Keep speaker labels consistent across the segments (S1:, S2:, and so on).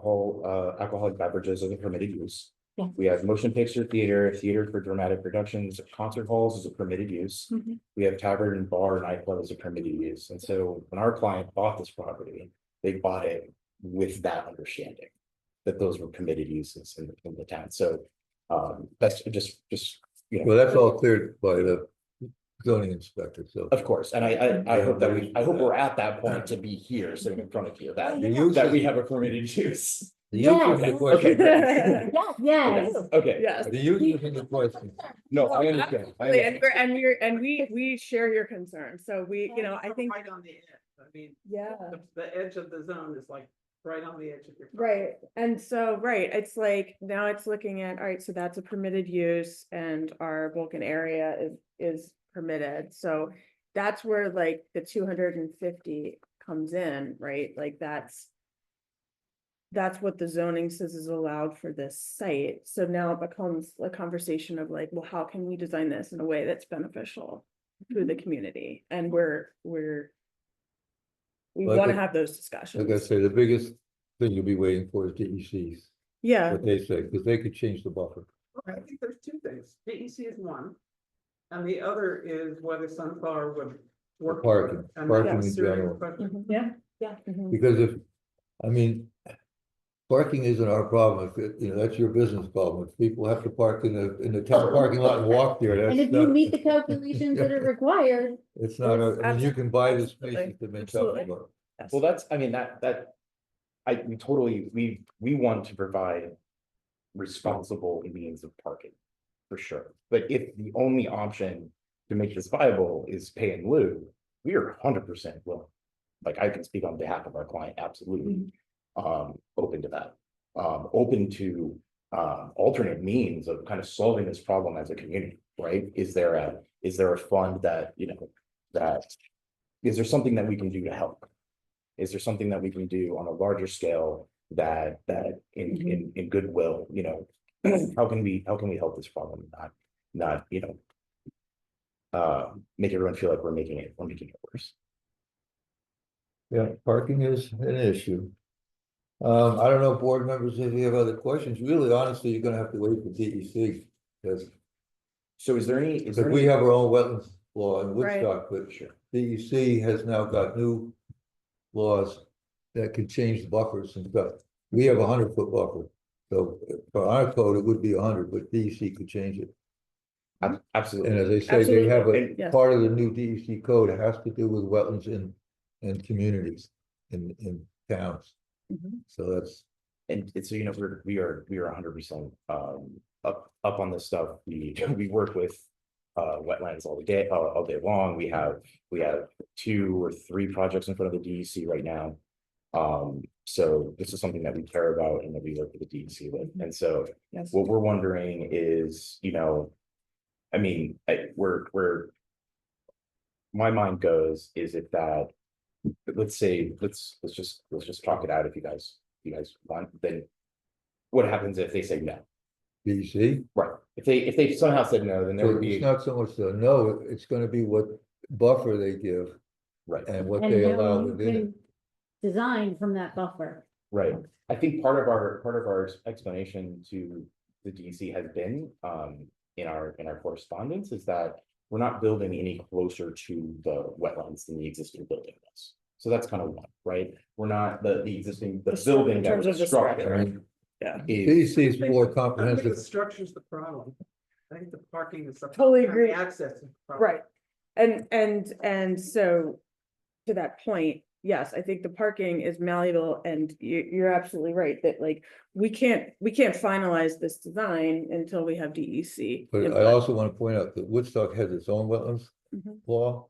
S1: alcohol, uh, alcoholic beverages as a permitted use.
S2: Yeah.
S1: We have motion picture theater, theater for dramatic productions, concert halls is a permitted use.
S2: Mhm.
S1: We have tavern and bar nightclub is a permitted use. And so when our client bought this property, they bought it with that understanding. That those were permitted uses in, in the town. So, um, that's just, just, you know.
S3: Well, that's all cleared by the zoning inspector, so.
S1: Of course, and I, I, I hope that we, I hope we're at that point to be here, sitting in front of you, that,
S3: The use
S1: that we
S3: is-
S1: have a permitted use.
S3: the use is
S1: Okay,
S3: the question.
S2: Yes,
S1: Yes,
S2: Oh, yes.
S1: okay,
S4: Yes.
S3: The use is the question.
S1: no, I understand. I
S4: And
S1: understand.
S4: we're, and we're, and we, we share your concern. So we, you know, I
S5: We're
S4: think,
S5: Right on the edge, I mean,
S4: yeah.
S5: the, the edge of the zone is like right on the edge of your.
S4: Right, and so, right, it's like, now it's looking at, all right, so that's a permitted use and our Vulcan area is, is permitted, so. That's where like the two hundred and fifty comes in, right, like that's. That's what the zoning says is allowed for this site, so now it becomes a conversation of like, well, how can we design this in a way that's beneficial? To
S3: Mm-hmm.
S4: the community, and we're, we're. We
S3: Well, I
S4: wanna
S3: think-
S4: have those discussions.
S3: Like I say, the biggest thing you'll be waiting for is DEC's,
S4: Yeah.
S3: what they say, because they could change the buffer.
S5: I think there's two things. DEC is one. And the other is whether Sunflower would work. for it.
S3: Parking,
S5: And
S3: parking
S5: that's
S3: in
S5: serious
S3: general.
S5: question.
S4: Mhm.
S2: Yeah.
S4: Mhm.
S3: Because if, I mean, parking isn't our problem, if, it- you know, that's your business problem. If people have to park in the, in the town parking lot and walk there, that's.
S2: And if you
S3: not-
S2: meet the calculations that are required,
S3: It's not, a- I mean, you can buy the spaces to make up
S4: Absolutely.
S3: for
S4: Yes.
S1: Well, that's, I mean, that, that, I, we totally, we, we want to provide responsible means of parking, for sure. But if the only option to make this viable is pay and lieu, we are hundred percent willing. Like, I can speak on behalf of our client, absolutely, um, open to that. Um, open to, um alternate means of kind of solving this problem as a community, right? Is there a, is there a fund that, you know, that, is there something that we can do to help? Is there something that we can do on a larger scale that, that in, in, in goodwill, you know? How can we, how can we help this problem, not, not, you know? Uh, make everyone feel like we're making it, we're making it worse.
S3: Yeah, parking is an issue. Um, I don't know, board members, if you have other questions, really honestly, you're gonna have to wait for E DEC. Because
S1: So is there any, is there?
S3: we
S1: any-
S3: have our own wetlands law in
S4: Right.
S3: Woodstock, but DEC has now got new laws that can change the buffers and stuff. We have a hundred foot buffer, so for our code, it would be hundred, but DEC could change it.
S1: Ab-
S3: And
S1: Absolutely,
S3: as I say, they have
S1: Absolutely.
S3: a,
S4: Yes.
S3: part of the new DEC code has to do with wetlands in, in communities, in, in towns.
S4: Mhm.
S3: So that's,
S1: and, and so, you know, we're, we are, we are hundred percent, um, up, up on this stuff. We, we work with. Uh, wetlands all the day, all, all day long. We have, we have two or three projects in front of the DEC right now. Um, so this is something that we care about and that we work with the DEC with, and so
S4: Yes.
S1: what we're wondering is, you know. I mean, I, we're, we're. My mind goes is if that, let's say, let's, let's just, let's just talk it out if you guys, you guys want, then. What happens if they say no?
S3: DEC,
S1: Right, if they, if they somehow said no, then there
S3: so
S1: would
S3: it's
S1: be,
S3: not so much the no, it's gonna be what buffer they give
S1: right,
S3: and what
S2: and
S3: they
S2: how
S3: allow
S2: you
S3: within it.
S2: can design from that buffer.
S1: right. I think part of our, part of our explanation to the DC has been, um, in our, in our correspondence is that. We're not building any closer to the wetlands than the existing building was. So that's kind of one, right? We're not, the, the existing, the
S4: The stru-
S1: building
S4: in
S1: that
S4: terms
S1: was
S4: of the structure.
S1: structured.
S4: Yeah.
S1: Is,
S3: DEC is
S5: think- I
S3: more
S5: think The
S3: comprehensive,
S5: structure's the problem. I think the parking is. the-
S4: Totally
S5: and the
S4: agree.
S5: Access. is the problem.
S4: Right, and, and, and so, to that point, yes, I think the parking is malleable, and you, you're absolutely right, that like, we can't, we can't finalize this design until we have E DEC.
S3: but I
S4: input.
S3: also wanna point out that Woodstock has its own wetlands
S4: Mhm.
S3: law.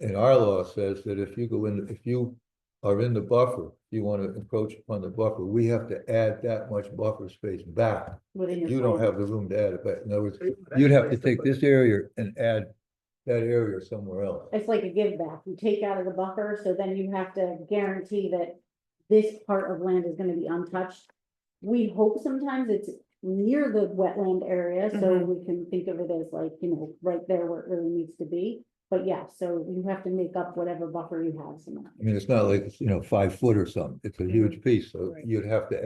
S3: And our law says that if you go in, if you are in the buffer, you wanna encroach upon the buffer, we have to add that much buffer space back.
S2: within your
S3: You don't
S2: plan.
S3: have the room to add it, but in other words,
S5: So would
S3: you'd have
S5: actually
S3: to take
S5: put-
S3: this area and add that area somewhere else.
S2: It's like a give back. You take out of the buffer, so then you have to guarantee that this part of land is gonna be untouched. We hope sometimes it's near the wetland area, so
S4: Mhm.
S2: we can think of it as like, you know, right there where it really needs to be. But yeah, so you have to make up whatever buffer you have somehow.
S3: I mean, it's not like, it's, you know, five foot or something, it's a huge piece, so
S4: Right.
S3: you'd have to